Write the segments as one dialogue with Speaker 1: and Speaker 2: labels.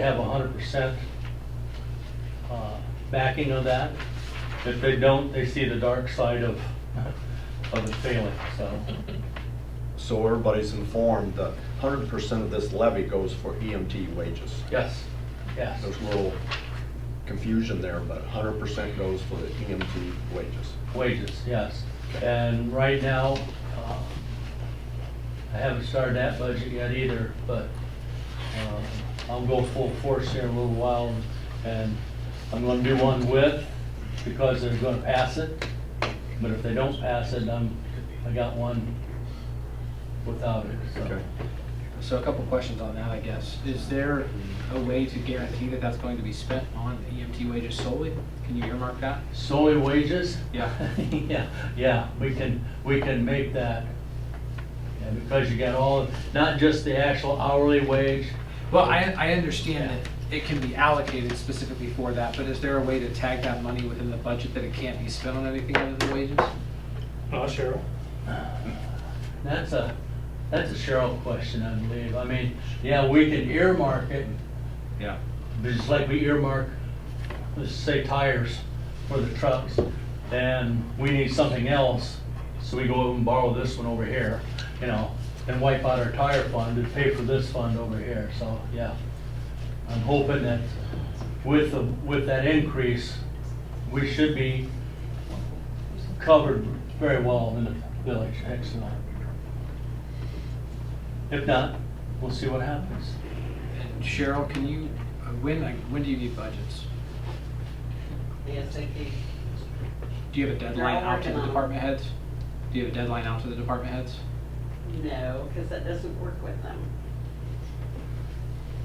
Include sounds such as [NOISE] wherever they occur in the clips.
Speaker 1: have hundred percent uh, backing of that. If they don't, they see the dark side of, of it failing, so.
Speaker 2: So everybody's informed that hundred percent of this levy goes for EMT wages.
Speaker 1: Yes, yes,
Speaker 2: There's a little confusion there, but hundred percent goes for the EMT wages.
Speaker 1: wages, yes. And right now, uh, I haven't started that budget yet either, but um, I'll go full force here in a little while. And I'm gonna do one with, because they're gonna pass it. But if they don't pass it, I'm, I got one without it, so.
Speaker 3: So a couple questions on that, I guess. Is there a way to guarantee that that's going to be spent on EMT wages solely? Can you earmark that?
Speaker 1: Solely wages?
Speaker 3: Yeah.
Speaker 1: [LAUGHS] Yeah, yeah, we can, we can make that. Yeah, because you got all, not just the actual hourly wage.
Speaker 3: Well, I, I understand that it can be allocated specifically for that, but is there a way to tag that money within the budget that it can't be spent on anything other than wages?
Speaker 4: Uh, Cheryl?
Speaker 1: That's a, that's a Cheryl question, I believe. I mean, yeah, we can earmark it,
Speaker 3: Yeah.
Speaker 1: but just like we earmark, let's say tires for the trucks. And we need something else, so we go and borrow this one over here, you know, and wipe out our tire fund and pay for this fund over here, so, yeah. I'm hoping that with, the with that increase, we should be covered very well in the village, excellent. If not, we'll see what happens.
Speaker 3: And Cheryl, can you, uh, when, like, when do you need budgets?
Speaker 5: ASAP.
Speaker 3: Do you have a deadline
Speaker 5: all
Speaker 3: out to
Speaker 5: working
Speaker 3: the
Speaker 5: on it.
Speaker 3: department heads? Do you have a deadline out to the department heads?
Speaker 5: No, because that doesn't work with them.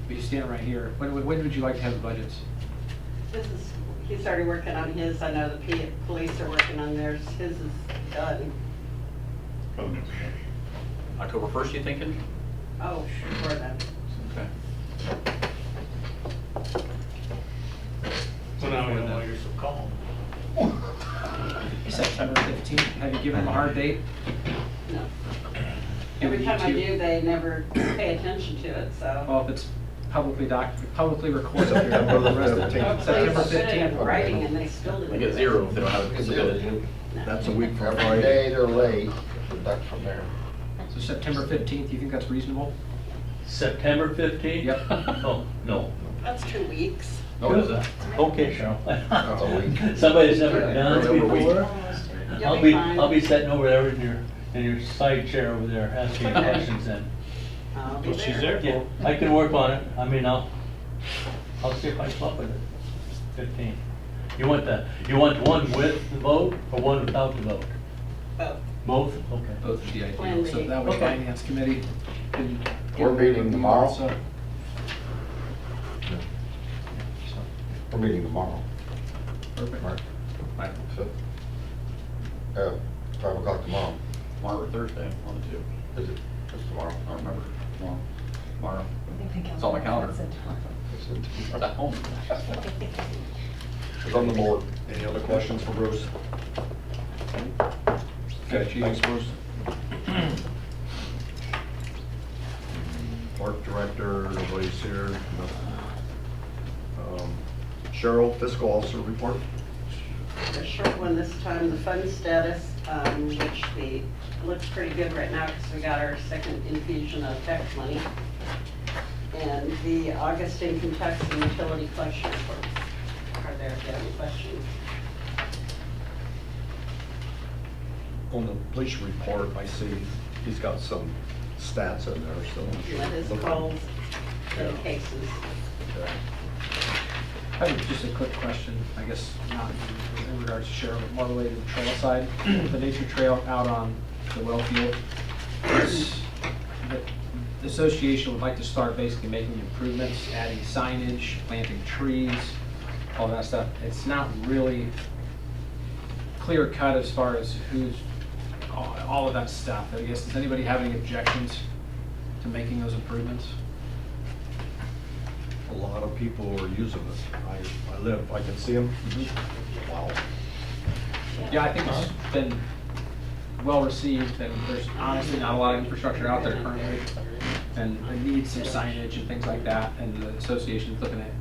Speaker 3: But you stand right here. When, when when would you like to have the budgets?
Speaker 5: This is, he's already working on his, I know the P- police are working on theirs, his is done.
Speaker 6: October 1st, you thinking?
Speaker 5: Oh, sure, then.
Speaker 6: Okay.
Speaker 4: So now we know why you're so calm.
Speaker 3: September fifteenth? Have you given them a hard date?
Speaker 5: no.
Speaker 3: Do we
Speaker 5: Every
Speaker 3: need
Speaker 5: time I
Speaker 3: to-
Speaker 5: do, they never pay attention to it, so.
Speaker 3: Well, if it's publicly doc, publicly recorded here,
Speaker 2: September the
Speaker 3: the rest of the
Speaker 2: 15th.
Speaker 3: time.
Speaker 5: Hopefully,
Speaker 3: September
Speaker 5: it's good in
Speaker 3: 15th.
Speaker 5: writing and they still didn't.
Speaker 6: They get
Speaker 5: do it.
Speaker 6: zero if they don't have it submitted.
Speaker 5: No.
Speaker 2: That's a week from
Speaker 7: Every day
Speaker 2: Friday.
Speaker 7: they're late, deduct from there.
Speaker 3: So September fifteenth, you think that's reasonable?
Speaker 1: September fifteenth?
Speaker 3: Yep.
Speaker 1: [LAUGHS] Oh, no.
Speaker 5: That's two weeks.
Speaker 6: No, it isn't.
Speaker 1: Okay,
Speaker 7: a
Speaker 1: Cheryl. [LAUGHS]
Speaker 7: week.
Speaker 1: Somebody's never
Speaker 7: Yeah,
Speaker 1: done it
Speaker 7: November week.
Speaker 1: before.
Speaker 5: You'll
Speaker 1: I'll be,
Speaker 5: fine.
Speaker 1: I'll be sitting over there in your, in your side chair over there asking
Speaker 5: Okay.
Speaker 1: questions then.
Speaker 5: I'll be
Speaker 4: Well, she's there
Speaker 1: Yeah,
Speaker 4: for.
Speaker 1: I can work on it. I mean, I'll, I'll see if I can come up with it. Fifteen. You want the, you want one with the vote or one without the vote?
Speaker 5: Both.
Speaker 1: Both? Okay.
Speaker 3: Both of the
Speaker 5: Plan
Speaker 3: ideal,
Speaker 5: B.
Speaker 3: so that way
Speaker 1: Okay.
Speaker 3: finance committee can.
Speaker 7: We're meeting tomorrow.
Speaker 3: So-
Speaker 7: We're meeting tomorrow,
Speaker 3: Perfect.
Speaker 7: Mark.
Speaker 6: Right.
Speaker 7: So, uh, five o'clock tomorrow.
Speaker 6: Tomorrow or Thursday, one of the two.
Speaker 7: Is it? It's tomorrow.
Speaker 6: I don't remember. Tomorrow. Tomorrow. It's on my calendar. It's at home.
Speaker 2: It's on the board. Any other questions for Bruce?
Speaker 3: Got you.
Speaker 2: Thanks, Bruce. Park director, nobody's here. no. Um, Cheryl, fiscal officer report.
Speaker 5: a short one this time, the fund status, um, which the, looks pretty good right now because we got our second infusion of tax money. And the August income tax and utility collection report. Are there if you have any questions?
Speaker 2: On the police report, I see he's got some stats in there, so. I'm sure-
Speaker 5: What is calls and cases?
Speaker 2: Okay.
Speaker 3: I have just a quick question, I guess, not in- in regards to Cheryl, but more related to trail side. The nature trail out on the well field. is- The the association would like to start basically making improvements, adding signage, planting trees, all that stuff. It's not really clear cut as far as who's, all all of that stuff. I guess, does anybody have any objections to making those improvements?
Speaker 2: A lot of people are using it. I, I live, I can see them. Wow.
Speaker 3: Yeah, I think it's been well received, and there's honestly not a lot of infrastructure out there currently. and it needs some signage and things like that, and the association's looking at